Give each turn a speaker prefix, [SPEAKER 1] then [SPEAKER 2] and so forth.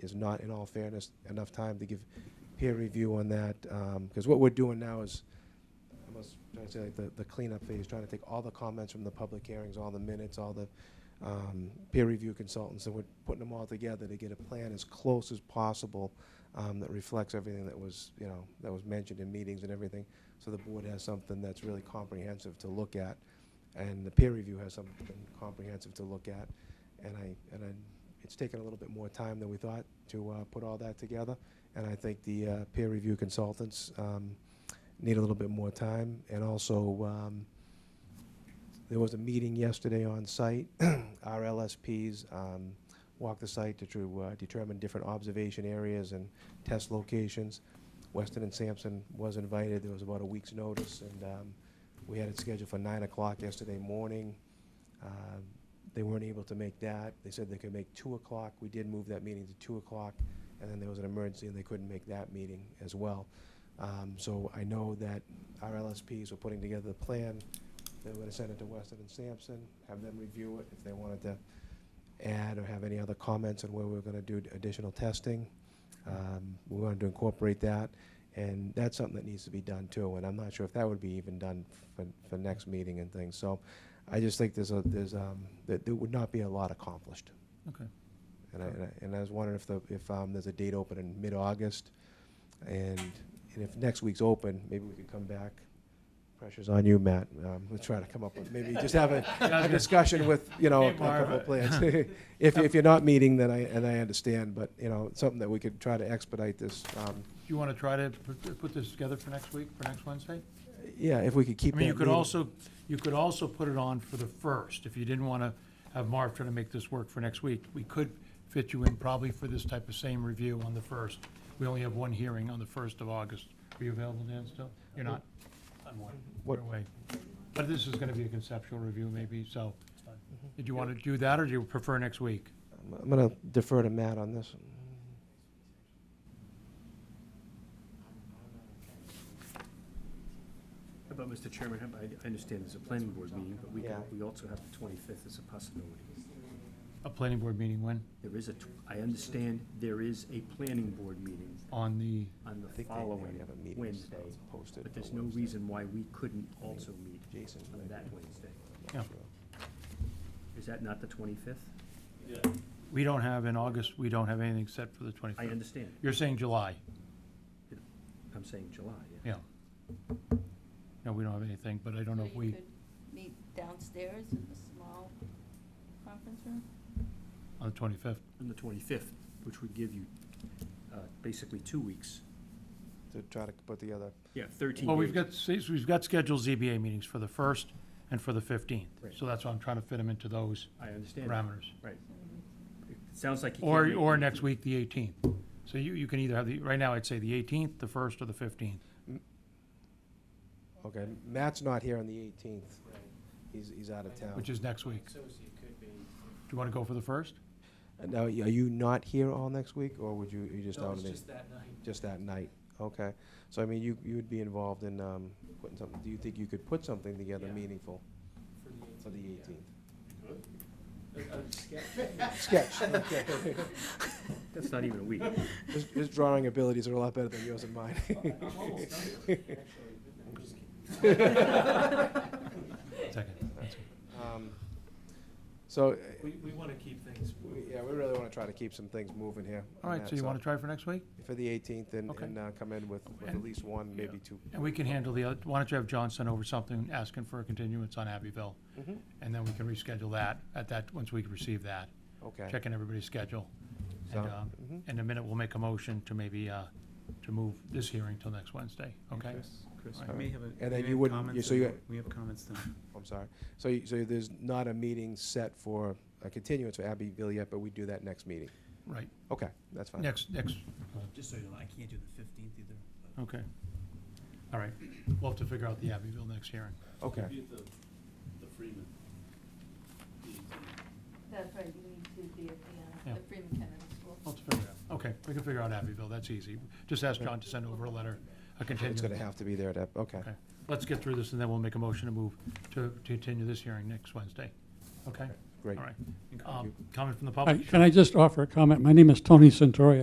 [SPEAKER 1] is not, in all fairness, enough time to give peer review on that. Because what we're doing now is, I was trying to say, like, the the cleanup phase, trying to take all the comments from the public hearings, all the minutes, all the um, peer review consultants, and we're putting them all together to get a plan as close as possible um, that reflects everything that was, you know, that was mentioned in meetings and everything, so the board has something that's really comprehensive to look at, and the peer review has something comprehensive to look at, and I, and I, it's taken a little bit more time than we thought to uh, put all that together, and I think the uh, peer review consultants um, need a little bit more time, and also, um, there was a meeting yesterday on site. Our LSPs um, walked the site to tru- uh, determine different observation areas and test locations. Weston and Sampson was invited. There was about a week's notice, and um, we had it scheduled for 9 o'clock yesterday morning. Um, They weren't able to make that. They said they could make 2 o'clock. We did move that meeting to 2 o'clock, and then there was an emergency, and they couldn't make that meeting as well. Um, So I know that our LSPs were putting together the plan. They were gonna send it to Weston and Sampson, have them review it if they wanted to add or have any other comments on where we're gonna do additional testing. Um, We wanted to incorporate that, and that's something that needs to be done too, and I'm not sure if that would be even done for, for next meeting and things. So I just think there's a, there's, um, that there would not be a lot accomplished.
[SPEAKER 2] Okay.
[SPEAKER 1] And I, and I- and I was wondering if the, if, um, there's a date open in mid-August, and, and if next week's open, maybe we could come back. Pressure's on you, Matt, um, we're trying to come up with, maybe just have a, a discussion with, you know, a
[SPEAKER 2] Hey, Marv.
[SPEAKER 1] couple of plans. If, if you're not meeting, then I, and I understand, but, you know, it's something that we could try to expedite this, um,
[SPEAKER 2] Do you want to try to put- put this together for next week, for next Wednesday?
[SPEAKER 1] yeah, if we could keep
[SPEAKER 2] I
[SPEAKER 1] that
[SPEAKER 2] mean, you could
[SPEAKER 1] meeting-
[SPEAKER 2] also, you could also put it on for the first, if you didn't want to have Marv try to make this work for next week. We could fit you in probably for this type of same review on the first. We only have one hearing on the first of August. Are you available, Dan, still? You're not? I'm one,
[SPEAKER 1] What-
[SPEAKER 2] you're away. But this is going to be a conceptual review maybe, so did you want to do that, or do you prefer next week?
[SPEAKER 1] I'm- I'm gonna defer to Matt on this.
[SPEAKER 3] How About Mr. Chairman, how about- I I understand there's a planning board meeting, but we,
[SPEAKER 1] Yeah.
[SPEAKER 3] we also have the 25th as a possibility.
[SPEAKER 2] A planning board meeting when?
[SPEAKER 3] There is a, tw- I understand there is a planning board meeting
[SPEAKER 2] On the,
[SPEAKER 3] on
[SPEAKER 1] I
[SPEAKER 3] the
[SPEAKER 1] think they already
[SPEAKER 3] following
[SPEAKER 1] have a meeting
[SPEAKER 3] Wednesday,
[SPEAKER 1] posted
[SPEAKER 3] but
[SPEAKER 1] for
[SPEAKER 3] there's no
[SPEAKER 1] Wednesday.
[SPEAKER 3] reason why we couldn't also meet
[SPEAKER 1] Jason.
[SPEAKER 3] on that Wednesday.
[SPEAKER 1] I'm
[SPEAKER 2] Yeah.
[SPEAKER 1] not sure.
[SPEAKER 3] Is that not the 25th?
[SPEAKER 2] we don't have, in August, we don't have anything set for the
[SPEAKER 3] I
[SPEAKER 2] 25th.
[SPEAKER 3] understand.
[SPEAKER 2] You're saying July?
[SPEAKER 3] I'm saying July, yeah.
[SPEAKER 2] Yeah. No, we don't have anything, but I don't know if
[SPEAKER 4] Or you
[SPEAKER 2] we,
[SPEAKER 4] could meet downstairs in the small conference room?
[SPEAKER 2] on the 25th,
[SPEAKER 3] On the 25th, which would give you uh, basically two weeks.
[SPEAKER 1] To try to put together,
[SPEAKER 3] Yeah, 13
[SPEAKER 2] well, we've
[SPEAKER 3] days.
[SPEAKER 2] got, see, we've got scheduled ZBA meetings for the 1st and for the 15th.
[SPEAKER 3] Right.
[SPEAKER 2] So that's why I'm trying to fit them into those
[SPEAKER 3] I understand.
[SPEAKER 2] parameters.
[SPEAKER 3] Right. It sounds like you can't
[SPEAKER 2] Or,
[SPEAKER 3] make
[SPEAKER 2] or
[SPEAKER 3] it.
[SPEAKER 2] next week, the 18th. So you, you can either have the, right now, I'd say the 18th, the 1st, or the 15th.
[SPEAKER 1] okay, Matt's not here on the eighteenth, he's, he's out of town.
[SPEAKER 2] Which is next week. Do you want to go for the first?
[SPEAKER 1] Uh, Now, y- are you not here all next week, or would you, you just
[SPEAKER 5] No,
[SPEAKER 1] out
[SPEAKER 5] it's
[SPEAKER 1] of the,
[SPEAKER 5] just that night.
[SPEAKER 1] just that night? Okay, so I mean, you, you would be involved in, um, putting something, do you think you could put something together
[SPEAKER 5] Yeah.
[SPEAKER 1] meaningful
[SPEAKER 5] For the
[SPEAKER 1] for the eighteenth?
[SPEAKER 5] eighteenth. I'm scared.
[SPEAKER 1] Sketch, okay.
[SPEAKER 3] That's not even a week.
[SPEAKER 1] His, his drawing abilities are a lot better than yours and mine.
[SPEAKER 5] I'm almost done with it, actually. I'm just kidding.
[SPEAKER 2] Second. that's it.
[SPEAKER 1] Um, So, uh,
[SPEAKER 5] We, we want to keep things
[SPEAKER 1] we- yeah, we really wanna try to keep some things moving here.
[SPEAKER 2] All
[SPEAKER 1] on
[SPEAKER 2] right,
[SPEAKER 1] that,
[SPEAKER 2] so you want to try for next week?
[SPEAKER 1] For the eighteenth, and,
[SPEAKER 2] Okay.
[SPEAKER 1] and, uh, come in with, with at
[SPEAKER 2] And-
[SPEAKER 1] least one, maybe two.
[SPEAKER 2] And we can handle the, other. why don't you have John send over something asking for a continuance on Abbeville?
[SPEAKER 1] Mhm.
[SPEAKER 2] And then we can reschedule that at that, once we receive that.
[SPEAKER 1] Okay.
[SPEAKER 2] checking everybody's schedule. And,
[SPEAKER 1] Sound-
[SPEAKER 2] um,
[SPEAKER 1] mhm.
[SPEAKER 2] in a minute, we'll make a motion to maybe, uh, to move this hearing till next Wednesday, okay?
[SPEAKER 5] Chris,
[SPEAKER 2] All
[SPEAKER 5] we
[SPEAKER 2] right.
[SPEAKER 5] may have a,
[SPEAKER 1] then
[SPEAKER 5] we may
[SPEAKER 1] you
[SPEAKER 5] have
[SPEAKER 1] wouldn't-
[SPEAKER 5] comments
[SPEAKER 1] you- so
[SPEAKER 5] and
[SPEAKER 1] you-
[SPEAKER 5] we have comments then.
[SPEAKER 1] I'm sorry. So, you- so there's not a meeting set for a continuance for Abbeville yet, but we do that next meeting.
[SPEAKER 2] Right,
[SPEAKER 1] Okay, that's fine.
[SPEAKER 2] next, next,
[SPEAKER 5] Just so you know, I can't do the fifteenth either.
[SPEAKER 2] okay. All right, we'll have to figure out the Abbeville next hearing.
[SPEAKER 1] Okay,
[SPEAKER 6] Be at the, the Freeman.
[SPEAKER 4] That's right, you need to be at the,
[SPEAKER 2] Yeah.
[SPEAKER 4] uh, the Freeman Kennedy School.
[SPEAKER 2] We'll have to figure it out, okay, we can figure out Abbeville, that's easy. Just ask John to send over a letter, a
[SPEAKER 1] it's gonna
[SPEAKER 2] continuance.
[SPEAKER 1] have to be there to, okay.
[SPEAKER 2] Okay, let's get through this, and then we'll make a motion to move, to to continue this hearing next Wednesday, okay?
[SPEAKER 1] Great.
[SPEAKER 2] All right.
[SPEAKER 1] Thank
[SPEAKER 2] Um,
[SPEAKER 1] you.
[SPEAKER 2] Comment from the
[SPEAKER 7] Hi,
[SPEAKER 2] public?
[SPEAKER 7] Can I just offer a comment? My name is Tony Santori.